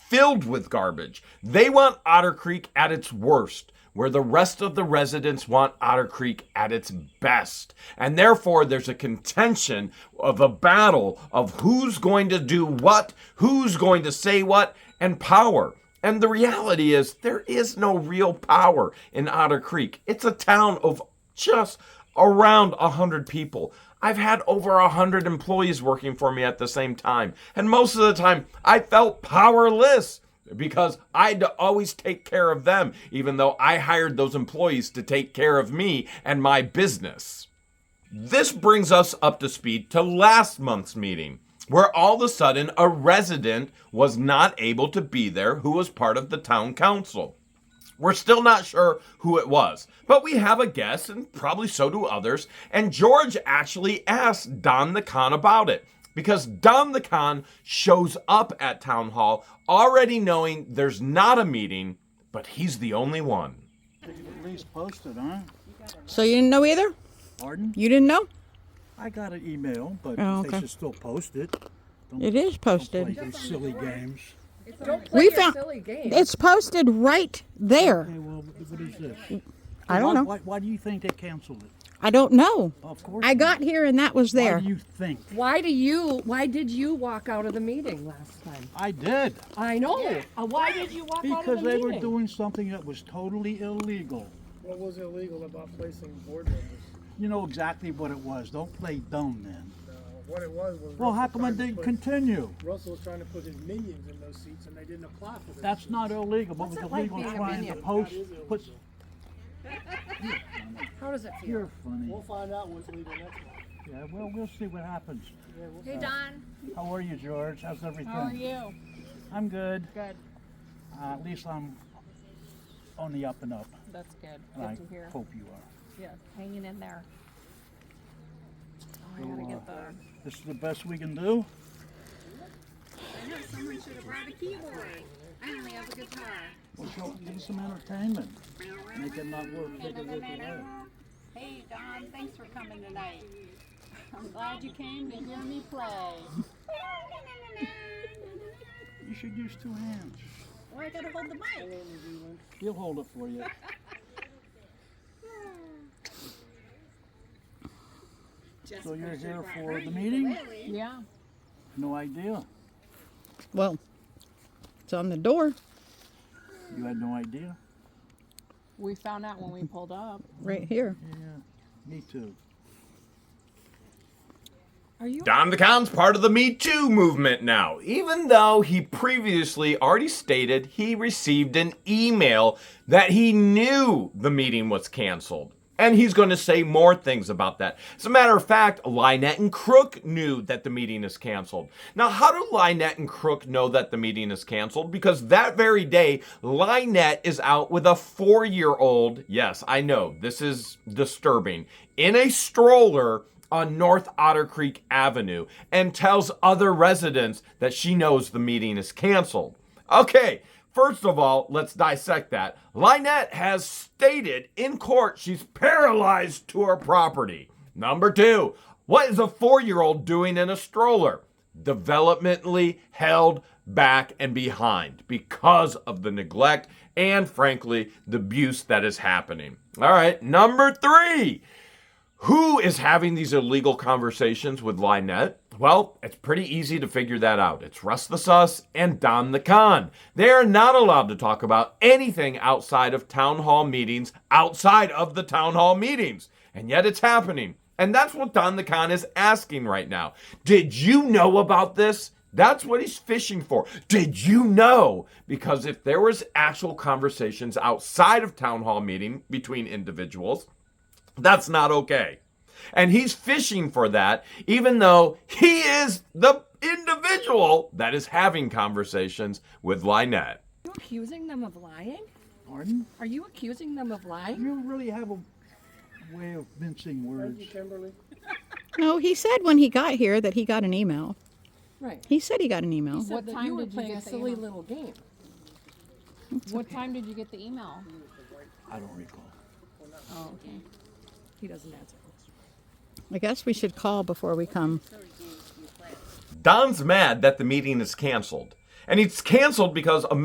filled with garbage. They want Otter Creek at its worst, where the rest of the residents want Otter Creek at its best. And therefore, there's a contention of a battle of who's going to do what, who's going to say what, and power. And the reality is, there is no real power in Otter Creek. It's a town of just around 100 people. I've had over 100 employees working for me at the same time. And most of the time, I felt powerless because I had to always take care of them, even though I hired those employees to take care of me and my business. This brings us up to speed to last month's meeting, where all of a sudden a resident was not able to be there who was part of the town council. We're still not sure who it was, but we have a guess, and probably so do others. And George actually asked Don the Con about it because Don the Con shows up at Town Hall already knowing there's not a meeting, but he's the only one. At least posted, huh? So you didn't know either? Pardon? You didn't know? I got an email, but Oh, they okay. should still post it. Don't It is play posted. these silly games. Don't play We your found silly game. it's posted right there. Hey, well, what is this? I don't Why- know. Why, why do you think they canceled it? I don't know. Of course. I got here and that was Why there. do you think? Why do you? Why did you walk out of the meeting last time? I did I know. Uh, why did you walk out because of the they meeting? were doing something that was totally illegal. What was illegal about placing board members? You know exactly what it was. Don't play dumb then. Uh, What it was was. Well, how Russell come it trying to didn't put- continue? Russell was trying to put his minions in those seats and they didn't apply for that. That's not illegal, but was it like illegal being a trying to minion? post. Put, How does it feel? you're funny. We'll find out what's legal next time. Yeah, well, we'll see what happens. Hey Don, How are you, George? How's everything? how are you? I'm good. Good. Uh, at least I'm on the up and up. That's good. and I Good to hear. hope you are. Yeah, hanging in there. Oh, I gotta get the. uh, This is the best we can do. Someone should have brought a keyboard. I only have a guitar. We'll show give you some entertainment. Make it not work. Make it work away. Hey Don, thanks for coming tonight. I'm glad you came to hear me play. You should use two hands. Well, I gotta hold the mic. He'll hold it for you. Just So you're 'cause here right. for the meeting? Yeah. No idea. Well, it's on the door You had no idea? We found out when we pulled up. right here. Yeah, me too. Are you? Don the Con's part of the Me Too movement now, even though he previously already stated he received an email that he knew the meeting was canceled. And he's going to say more things about that. As a matter of fact, Lynette and Crook knew that the meeting is canceled. Now, how do Lynette and Crook know that the meeting is canceled? Because that very day, Lynette is out with a four year old. Yes, I know, this is disturbing. In a stroller on North Otter Creek Avenue and tells other residents that she knows the meeting is canceled. Okay, first of all, let's dissect that. Lynette has stated in court she's paralyzed to her property. Number two, what is a four year old doing in a stroller? Developmentally held back and behind because of the neglect and, frankly, the abuse that is happening. All right, number three. Who is having these illegal conversations with Lynette? Well, it's pretty easy to figure that out. It's Russ the Sus and Don the Con. They are not allowed to talk about anything outside of town hall meetings, outside of the town hall meetings. And yet it's happening. And that's what Don the Con is asking right now. Did you know about this? That's what he's fishing for. Did you know? Because if there was actual conversations outside of town hall meeting between individuals, that's not okay. And he's fishing for that, even though he is the individual that is having conversations with Lynette. you accusing them of lying? Pardon? Are you accusing them of lying? You really have a way of mincing words. Kimberly, No, he said when he got here that he got an email. Right. He said he got an email. Mm-hmm. What That time you were did you playing a get the silly email? little game. What time did you get the email? I don't recall. Oh, okay. He doesn't answer questions. I guess we should call before we come. Don's mad that the meeting is canceled. And it's canceled because a